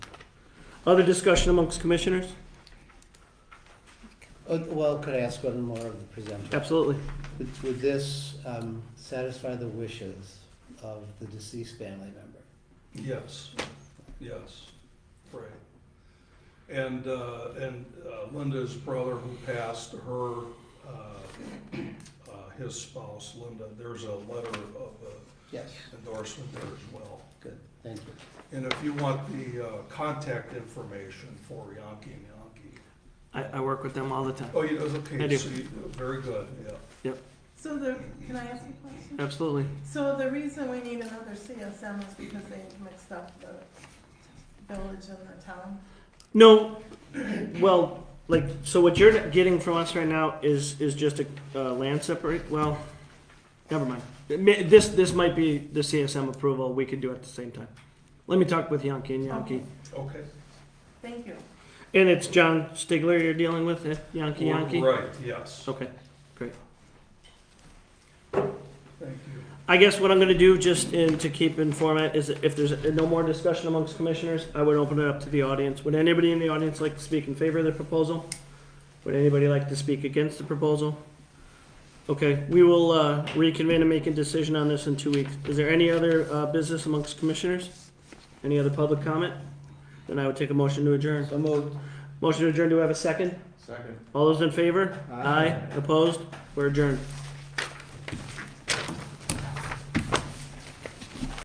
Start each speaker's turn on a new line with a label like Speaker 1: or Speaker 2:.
Speaker 1: Other discussion amongst commissioners?
Speaker 2: Uh, Well, could I ask one more of the presenter?
Speaker 1: Absolutely.
Speaker 2: Would- Would this um, satisfy the wishes of the deceased family member?
Speaker 3: Yes, yes, right. And, uh, and uh, Linda's brother who passed, her, uh, uh, his spouse, Linda, there's a letter of uh,
Speaker 2: Yes.
Speaker 3: endorsement there as well.
Speaker 2: Good, thank you.
Speaker 3: And if you want the, uh, contact information for Yonki and Yonki.
Speaker 1: I, I work with them all the time.
Speaker 3: Oh, you know,
Speaker 1: I
Speaker 3: okay,
Speaker 1: do.
Speaker 3: so you, very good, yeah.
Speaker 4: So the, can I ask a question?
Speaker 1: Absolutely.
Speaker 4: So the reason we need another CSM is because they mixed up the village and the town?
Speaker 1: No, well, like, so what you're getting from us right now is, is just a, uh, land separate, well, never mind. It may- This, this might be the CSM approval, we could do it at the same time. Let me talk with Yankee and Yankee.
Speaker 4: Okay.
Speaker 3: Okay.
Speaker 4: Thank you.
Speaker 1: And it's John Stigler you're dealing with, eh? Yankee Yankee?
Speaker 3: Right, yes,
Speaker 1: Okay.
Speaker 3: thank you.
Speaker 1: I guess what I'm gonna do, just in, to keep in format, is if there's no more discussion amongst commissioners, I would open it up to the audience. Would anybody in the audience like to speak in favor of the proposal? Would anybody like to speak against the proposal? Okay, we will, uh, reconvene and make a decision on this in two weeks. Is there any other, uh, business amongst commissioners? Any other public comment? Then I would take a motion to adjourn.
Speaker 2: So moved.
Speaker 1: Motion to adjourn, do I have a second?
Speaker 5: Second.
Speaker 1: All those in favor? Opposed? We're adjourned.